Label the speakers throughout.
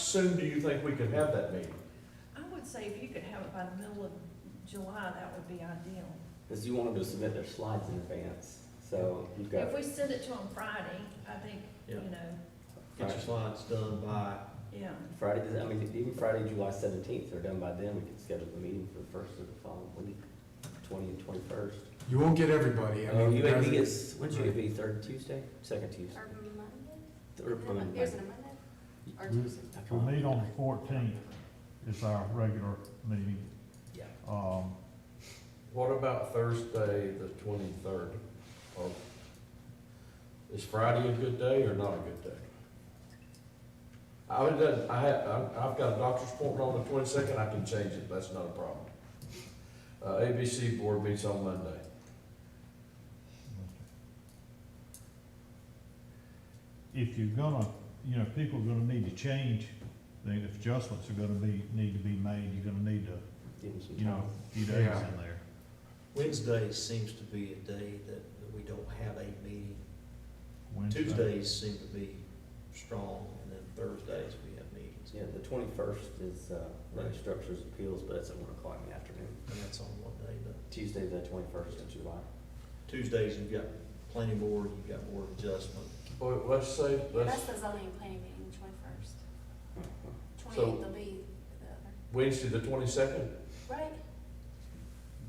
Speaker 1: soon do you think we could have that meeting?
Speaker 2: I would say if you could have it by the middle of July, that would be ideal.
Speaker 3: Because you want them to submit their slides in advance, so you've got,
Speaker 2: If we send it to them Friday, I think, you
Speaker 4: Yeah.
Speaker 2: know,
Speaker 4: Get your slides done by,
Speaker 2: yeah.
Speaker 3: Friday, I mean, even Friday, July seventeenth, they're done by then, we can schedule the meeting for the first of the following week, twenty and twenty-first.
Speaker 5: You won't get everybody, I
Speaker 3: Oh,
Speaker 5: mean.
Speaker 3: you may
Speaker 5: guys-
Speaker 3: be, it's, when'd you get me, third Tuesday, second Tuesday?
Speaker 6: Or Monday?
Speaker 3: Or Monday. Hmm.
Speaker 6: Here's a Monday? Or Tuesday?
Speaker 3: I can't
Speaker 7: We'll meet
Speaker 3: remember.
Speaker 7: on the fourteenth, it's our regular meeting.
Speaker 3: Yeah.
Speaker 7: Um,
Speaker 1: What about Thursday, the twenty-third? Is Friday a good day or not a good day? I would, done- I had, I- I've got a doctor's appointment on the twenty-second, I can change it, that's not a problem. Uh, ABC board meets on Monday.
Speaker 7: If you're gonna, you know, people are gonna need to change, then if adjustments are gonna be, need to be made, you're gonna need to,
Speaker 3: Give them some
Speaker 7: you know,
Speaker 3: time.
Speaker 7: a few days
Speaker 5: Yeah.
Speaker 7: in there.
Speaker 4: Wednesday seems to be a day that that we don't have a meeting.
Speaker 7: Wednesday.
Speaker 4: Tuesdays seem to be strong, and then Thursdays we have meetings.
Speaker 3: Yeah, the twenty-first is, uh, Land Structures Appeals, but it's at one o'clock in the afternoon,
Speaker 4: And that's on what day, but
Speaker 3: Tuesday, the twenty-first of July.
Speaker 4: Tuesdays you've got planning board, you've got board adjustment.
Speaker 1: Well, let's say,
Speaker 6: That's
Speaker 1: let's,
Speaker 6: the zoning planning meeting, twenty-first.
Speaker 1: So-
Speaker 6: Twenty-eighth will be the other,
Speaker 1: Wednesday, the twenty-second,
Speaker 6: right?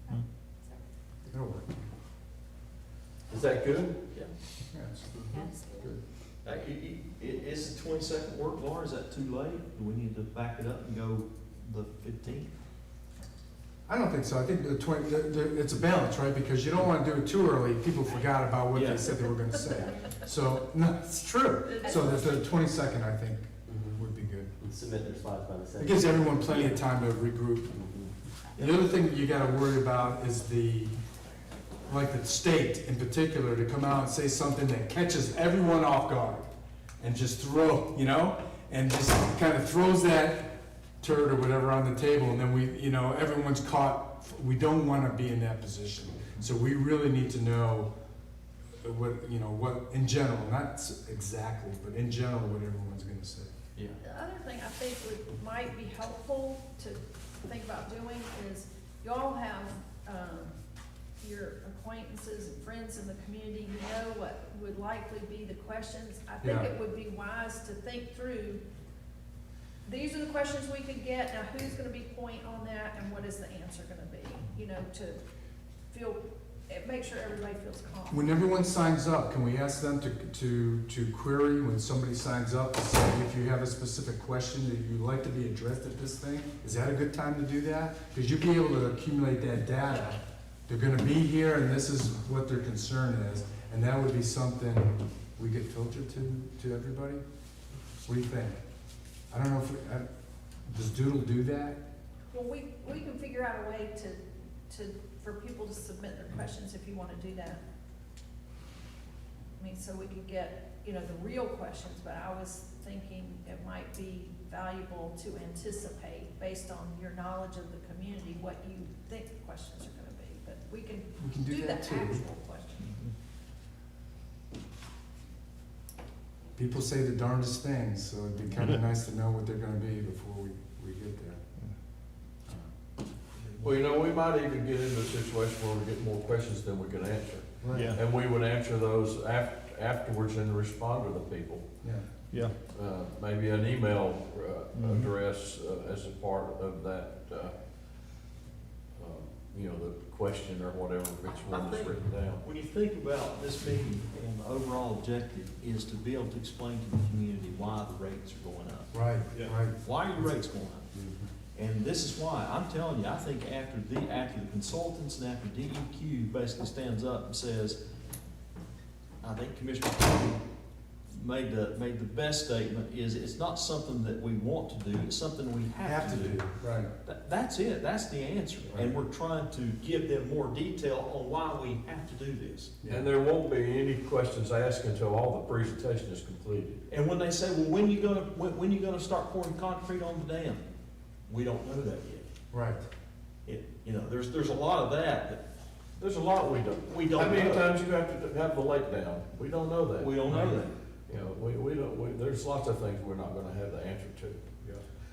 Speaker 7: Hmm.
Speaker 6: So,
Speaker 3: Mm-hmm.
Speaker 5: It'll work.
Speaker 1: is that good?
Speaker 4: Yeah.
Speaker 5: Yeah, it's-
Speaker 6: that's good.
Speaker 4: Uh, i- i- i- Is the twenty-second work, Laura? Is that too late? Do we need to back it up and go the fifteenth?
Speaker 5: I don't think so, I think the twenty, the, the, it's a balance, right, because you don't wanna do it too early, people forgot about what
Speaker 4: Yeah.
Speaker 5: they said they were gonna say. So, no, it's true, so the, the twenty-second, I think, would be good.
Speaker 3: And submit their slides by the Mm-hmm.
Speaker 5: Mm-hmm. It
Speaker 3: seventeenth.
Speaker 5: gives everyone plenty of time to regroup. The other thing that you gotta worry about is the, like the state in particular, to come out and say something that catches everyone off guard and just throw, you know, and just kind of throws that turd or whatever on the table, and then we, you know, everyone's caught. We don't want to be in that position, so we really need to know what, you know, what in general, not s- exactly, but in general, what everyone's gonna say.
Speaker 4: Yeah.
Speaker 2: The other thing I think would, might be helpful to think about doing is, y'all have, um, your acquaintances and friends in the community, you know what would likely be the questions. I think
Speaker 5: Yeah.
Speaker 2: it would be wise to think through, these are the questions we could get, now who's gonna be point on that, and what is the answer gonna be? You know, to feel, eh, make sure everybody feels calm.
Speaker 5: When everyone signs up, can we ask them to, to, to query when somebody signs up, to say if you have a specific question that you'd like to be addressed at this thing? Is that a good time to do that? Because you'll be able to accumulate that data. They're gonna be here and this is what their concern is, and that would be something we could filter to, to everybody? What do you think? I don't know if, we- I- does Doodle do that?
Speaker 2: Well, we, we can figure out a way to, to, for people to submit their questions if you wanna do that. I mean, so we could get, you know, the real questions, but I was thinking it might be valuable to anticipate based on your knowledge of the community, what you think the questions are gonna be, but we can
Speaker 5: We can
Speaker 2: do
Speaker 5: do
Speaker 2: the
Speaker 5: that too.
Speaker 2: actual question.
Speaker 5: People say the darndest things, so it'd be kinda nice to know what they're gonna be before we, we get there.
Speaker 1: Well, you know, we might even get into a situation where we get more questions than we can answer.
Speaker 5: Right.
Speaker 7: Yeah,
Speaker 1: And we would answer those af- afterwards and respond to the people.
Speaker 5: Yeah.
Speaker 7: yeah.
Speaker 1: Uh, Maybe an email uh,
Speaker 7: Mhm.
Speaker 1: address uh, as a part of that, uh, um, you know, the question or whatever, which
Speaker 4: I
Speaker 1: one is
Speaker 4: think-
Speaker 1: written down.
Speaker 4: When you think about this meeting and the overall objective is to be able to explain to the community why the rates are going up.
Speaker 5: Right,
Speaker 7: Yeah.
Speaker 5: right.
Speaker 4: Why are your rates going up? And this is why, I'm telling you, I think after the, after the consultants and after DEQ basically stands up and says, I think Commissioner Tony made the, made the best statement, is it's not something that we want to do, it's something we have to do.
Speaker 5: Right.
Speaker 4: Tha- That's it, that's the answer, and we're trying to give them more detail on why we have to do this.
Speaker 1: And there won't be any questions asked until all the presentation is completed.
Speaker 4: And when they say, well, when you gonna, when, when you gonna start pouring concrete on the dam? We don't know that yet.
Speaker 5: Right.
Speaker 4: It, you know, there's, there's a lot of that that
Speaker 1: There's a lot we don't.
Speaker 4: We don't
Speaker 1: How many
Speaker 4: know.
Speaker 1: times you have to have the lake down? We don't know that.
Speaker 4: we don't know that.
Speaker 1: You know, we, we don't, we, there's lots of things we're not gonna have the answer to.